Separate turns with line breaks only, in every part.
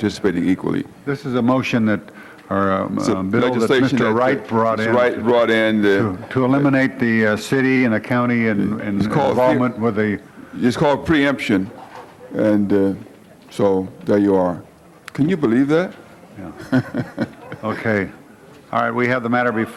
participating equally.
This is a motion that, or a
It's a
a bill that
legislation
Mr.
uh,
Wright brought
Mr.
in.
Wright brought in,
to-
uh,
To eliminate the uh, city and the county and and
It's called-
involvement with the,
it's called preemption, and uh, so there you are. Can you believe that?
okay. All right, we have the matter bef,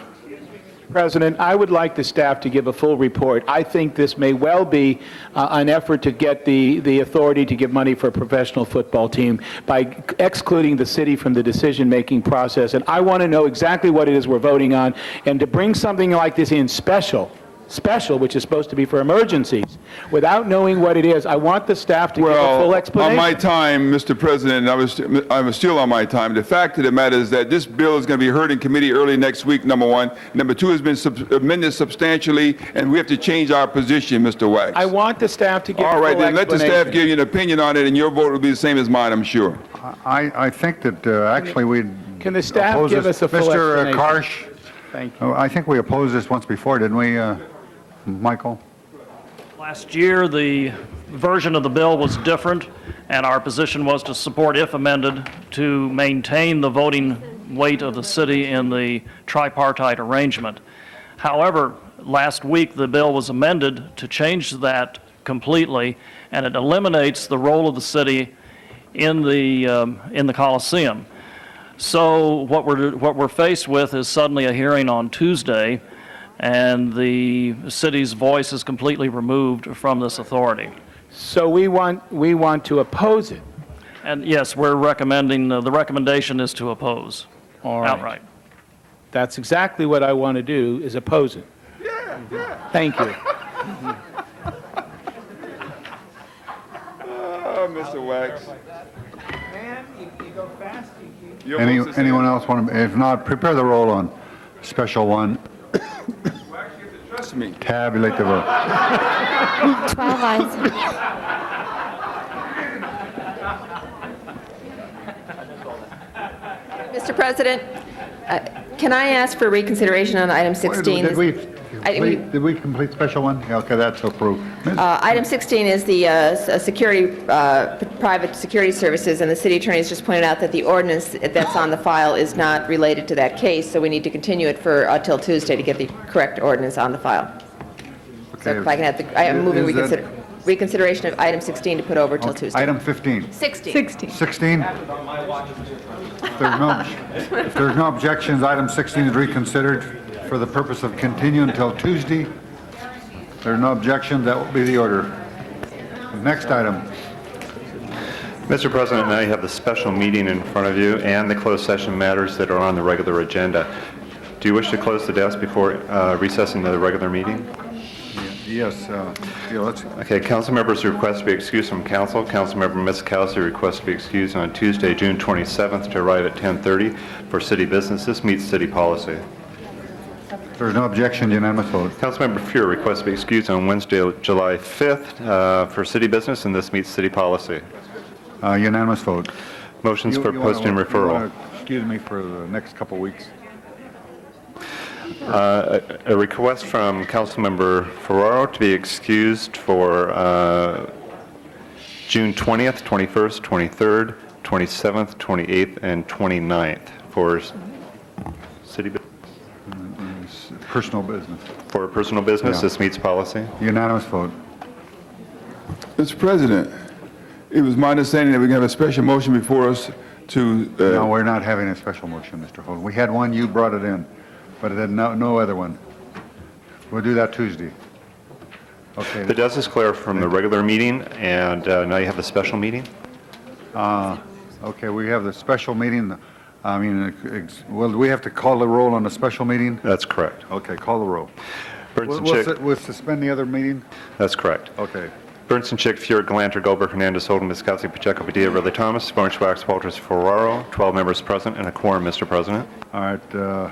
President, I would like the staff to give a full report. I think this may well be uh, an effort to get the, the authority to give money for a professional football team by excluding the city from the decision-making process. And I want to know exactly what it is we're voting on, and to bring something like this in special, special, which is supposed to be for emergencies, without knowing what it is, I want the staff to give a full
on my
explanation.
time, Mr. President, I was, I was still on my time. The fact of the matter is that this bill is going to be heard in committee early next week, number one. Number two, has been sub- amended substantially, and we have to change our position, Mr. Wax.
I want the staff to give a
All
full
right,
explanation.
then let the staff give you an opinion on it, and your vote will be the same as mine, I'm sure.
I, I think that uh, actually we.
can the staff
oppose
give
this.
us a full
Mr.
explanation?
Karsh,
Thank you.
oh, I think we opposed this once before, didn't we, uh, Michael?
Last year, the version of the bill was different, and our position was to support, if amended, to maintain the voting weight of the city in the tripartite arrangement. However, last week, the bill was amended to change that completely, and it eliminates the role of the city in the, um, in the Coliseum. So what we're, what we're faced with is suddenly a hearing on Tuesday, and the city's voice is completely removed from this authority.
So we want, we want to oppose it.
And yes, we're recommending, uh, the recommendation is to oppose
All right.
outright.
That's exactly what I want to do, is oppose it. Thank you.
Oh, Mr. Wax. Your
Any,
vote's the same.
anyone else want to, if not, prepare the roll on special one,
Trust me.
tabulate the vote.
12 eyes.
Mr. President, uh, can I ask for reconsideration on item 16?
Did we,
I- we-
complete- did we complete special one? Yeah, Okay, that's approved. Ms.
Uh, Item 16 is the uh, s- uh, security, uh, p- private security services, and the city attorney has just pointed out that the ordinance that's on the file is not related to that case, so we need to continue it for, uh, till Tuesday to get the correct ordinance on the file. So if I can have, the- I am moving
Is that-
reconsider- reconsideration of item 16 to put over till Tuesday.
Item 15.
16.
16.
16? If there's no, if there's no objections, item 16 is reconsidered for the purpose of continuing until Tuesday. If there are no objections, that will be the order. Next item.
Mr. President, now you have the special meeting in front of you and the closed session matters that are on the regular agenda. Do you wish to close the desk before uh, recessing to the regular meeting?
Yes, uh, yeah, let's,
Okay, council members request to be excused from council. Councilmember Miskowski requests to be excused on Tuesday, June 27th, to arrive at 10:30 for city business. This meets city policy.
if there's no objection, unanimous vote.
Councilmember Fuhr requests to be excused on Wednesday, July 5th, uh, for city business, and this meets city policy.
Uh, Unanimous vote.
Motions
You-
for
you wanna-
posting
you
referral.
wanna Excuse me for the next couple weeks.
A request from Councilmember Ferraro to be excused for uh, June 20th, 21st, 23rd, 27th, 28th, and 29th for s- city, bu-
Personal business.
for personal business.
Yeah.
This meets policy.
Unanimous vote.
Mr. President, it was my understanding that we're going to have a special motion before us to, uh,
No, we're not having a special motion, Mr. Holden. We had one, you brought it in, but then no, no other one. We'll do that Tuesday.
The
Okay,
desk is clear from the regular meeting, and uh, now you have a special meeting.
okay, we have the special meeting, I mean, ex- well, do we have to call the roll on the special meeting?
That's correct.
Okay, call the roll.
Burns
We'll,
and
we'll
Chick,
su- we'll suspend the other meeting?
that's correct.
Okay.
Burns and Chick, Fuhr, Galanter, Goldberg, Hernandez, Holden, Miskowski, Pacheco, Padilla, Ridley, Thomas, Barnes, Wax, Walters, Ferraro, 12 members present, and a quorum, Mr. President.
All right, uh,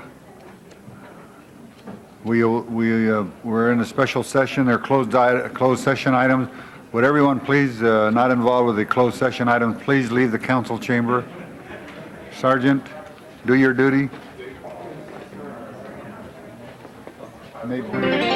we, we, uh, we're in a special session, there are closed, di- closed session items. Would everyone please, uh, not involved with the closed session items, please leave the council chamber? Sergeant, do your duty. Nate Burns.